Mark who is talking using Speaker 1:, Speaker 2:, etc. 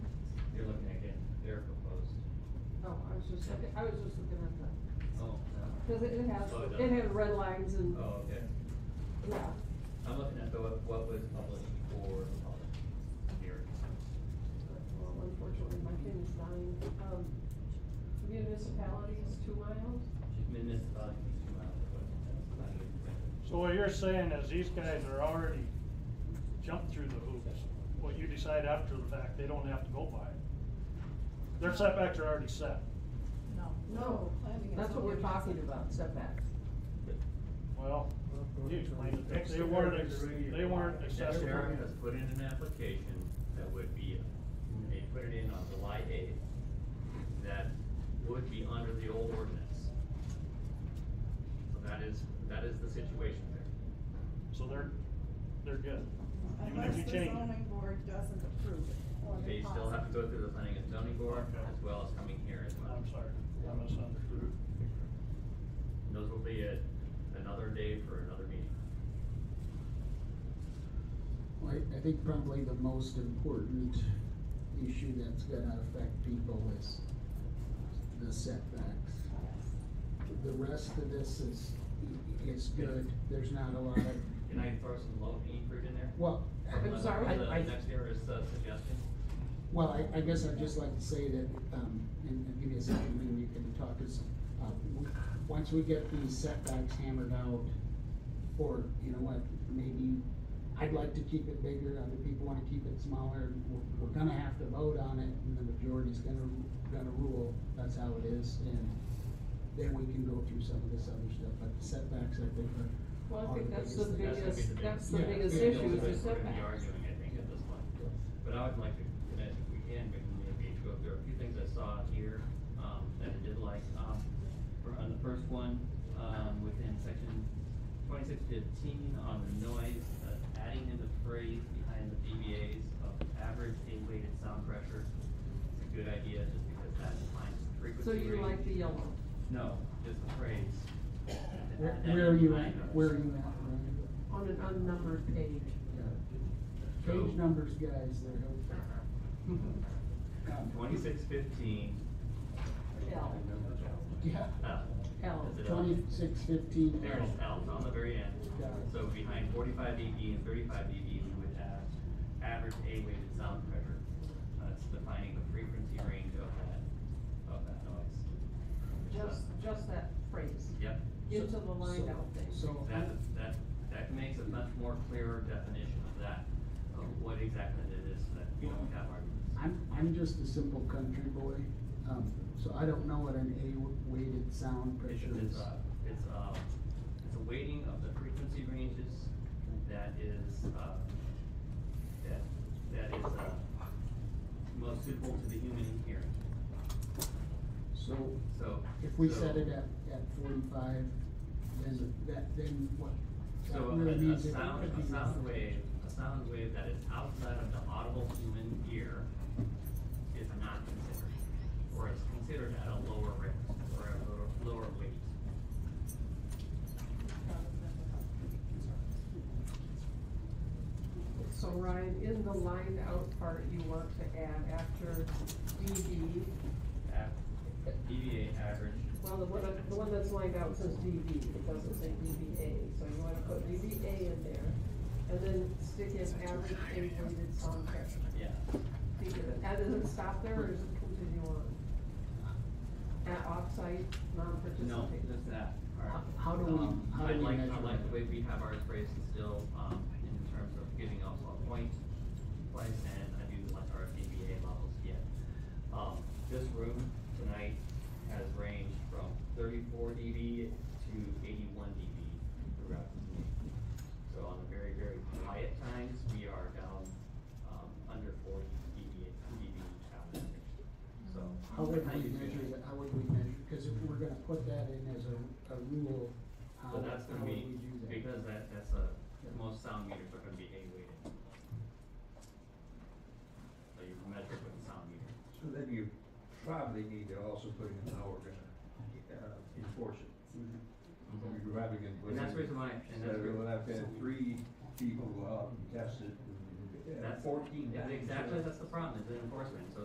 Speaker 1: was just looking, Oh, I was just looking at that,
Speaker 2: Oh.
Speaker 1: cause it it has,
Speaker 2: Oh, it
Speaker 1: it
Speaker 2: does.
Speaker 1: had red lines and,
Speaker 2: Oh, okay.
Speaker 1: yeah.
Speaker 2: I'm looking at the, what what was published for the public here.
Speaker 1: Well, unfortunately, my thing is dying, um, municipalities, two miles,
Speaker 2: Municipality, two miles away. That's not even-
Speaker 3: So what you're saying is these guys are already jumped through the hoops. What you decide after the fact, they don't have to go by it. Their setbacks are already set.
Speaker 4: No.
Speaker 1: No, that's what we're talking about, setbacks.
Speaker 3: Well, you explained it. They weren't, ex- they weren't accessible.
Speaker 2: Sharon has put in an application that would be, they put it in on July eighth, that would be under the old ordinance. So that is, that is the situation there.
Speaker 3: So they're, they're good. Even if
Speaker 4: Unless
Speaker 3: you
Speaker 4: the
Speaker 3: change it.
Speaker 4: zoning board doesn't approve it. or
Speaker 2: They still have to go through the planning and zoning board,
Speaker 3: Okay.
Speaker 2: as well as coming here as well.
Speaker 3: I'm sorry, I misunderstood.
Speaker 2: Those will be at another day for another meeting.
Speaker 5: Well, I, I think probably the most important issue that's gonna affect people is the setbacks. The rest of this is, is good, there's not a lot of,
Speaker 2: Can I throw some low hanging fruit in there?
Speaker 5: well,
Speaker 1: I'm sorry?
Speaker 2: The
Speaker 5: I- I-
Speaker 2: next era's uh, suggestion?
Speaker 5: well, I, I guess I'd just like to say that, um, and, and give me a second, and you can talk, is, uh, w- once we get these setbacks hammered out, or, you know what, maybe, I'd like to keep it bigger, other people wanna keep it smaller, we're, we're gonna have to vote on it, and the majority's gonna, gonna rule, that's how it is, and then we can go through some of this other stuff, but the setbacks, I think, are.
Speaker 1: Well, I think
Speaker 5: are
Speaker 1: that's the
Speaker 5: thing.
Speaker 2: That's gonna be
Speaker 1: biggest,
Speaker 2: the
Speaker 1: that's the biggest
Speaker 5: biggest- Yeah,
Speaker 1: issue,
Speaker 2: We're gonna
Speaker 1: is the
Speaker 5: yeah.
Speaker 2: be
Speaker 1: setbacks.
Speaker 2: arguing, I think, at this point. But I would like to, and if we can, maybe maybe go through a few things I saw here, um, that I did like. Um, for- on the first one, um, within section twenty-six fifteen, on the noise, uh, adding in the phrase behind the DBAs of average A-weighted sound pressure. It's a good idea, just because that defines frequency
Speaker 1: So you like
Speaker 2: range.
Speaker 1: the yellow?
Speaker 2: No, just the phrase.
Speaker 5: Where, where are you at, where are you at, Ryan?
Speaker 1: On an unnumbered page.
Speaker 5: Yeah.
Speaker 2: So-
Speaker 5: Page numbers, guys, they're helpful.
Speaker 1: Mm-hmm.
Speaker 2: Twenty-six fifteen.
Speaker 1: L,
Speaker 5: Yeah,
Speaker 2: L.
Speaker 1: L.
Speaker 2: Is it L?
Speaker 5: twenty-six fifteen.
Speaker 2: There's L on the very end.
Speaker 5: Got it.
Speaker 2: So behind forty-five dB and thirty-five dB, we would have average A-weighted sound pressure. That's defining the frequency range of that, of that noise.
Speaker 1: Just, just that phrase.
Speaker 2: Yep.
Speaker 1: Into the lined
Speaker 5: So-
Speaker 1: out thing.
Speaker 5: So,
Speaker 2: That, that, that makes a much more clearer definition of that, of what exactly it is that we don't have arguments.
Speaker 5: I'm, I'm just a simple country boy, um, so I don't know what an A-weighted sound
Speaker 2: It's,
Speaker 5: pressure
Speaker 2: it's,
Speaker 5: is.
Speaker 2: uh, it's, uh, it's a weighting of the frequency ranges that is, uh, that, that is, uh, most suitable to the human hearing,
Speaker 5: So,
Speaker 2: so.
Speaker 5: if we
Speaker 2: so-
Speaker 5: set it at, at forty-five, then that, then what?
Speaker 2: So
Speaker 5: That
Speaker 2: a,
Speaker 5: really
Speaker 2: a
Speaker 5: means it
Speaker 2: sound,
Speaker 5: could
Speaker 2: a
Speaker 5: be-
Speaker 2: sound wave, a sound wave that is outside of the audible human ear is not considered, or is considered at a lower rate, or a lower, lower weight.
Speaker 1: So Ryan, in the lined out part, you want to add after DB,
Speaker 2: At DBA average,
Speaker 1: well, the one, the one that's lined out says DB, it doesn't say DBA, so you wanna put DBA in there. And then stick in average A-weighted sound pressure.
Speaker 2: yeah.
Speaker 1: Think of it. And does it stop there or does it continue on? At offsite, non-participating?
Speaker 2: No, just that.
Speaker 5: How- how do we-
Speaker 2: Um,
Speaker 5: how do we
Speaker 2: I like, I
Speaker 5: measure
Speaker 2: like the
Speaker 5: that?
Speaker 2: way we have ours phrased still, um, in terms of giving us a point, place, and I do like our DBA levels yet. Um, this room tonight has ranged from thirty-four dB to eighty-one dB throughout the evening. So on the very, very quiet times, we are down, um, under forty dB, dB average, so.
Speaker 5: How would
Speaker 2: do
Speaker 5: we
Speaker 2: you feel?
Speaker 5: measure that, how would we measure, cause if we're gonna put that in as a, a rule, how,
Speaker 2: So
Speaker 5: Um, how would
Speaker 2: that's gonna
Speaker 5: we
Speaker 2: be,
Speaker 5: do that?
Speaker 2: because that, that's a, most sound meters are gonna be A weighted. So you measure with the sound meter.
Speaker 6: So then you probably need to also put in how we're gonna, uh, enforce it. You're probably gonna put
Speaker 2: And that's
Speaker 6: in-
Speaker 2: the reason why- and
Speaker 6: So
Speaker 2: that's the-
Speaker 6: we'll have to have three people go out and test it. and, uh,
Speaker 2: That's,
Speaker 6: Fourteen.
Speaker 2: that's
Speaker 6: times.
Speaker 2: exactly, that's the problem, is the enforcement, so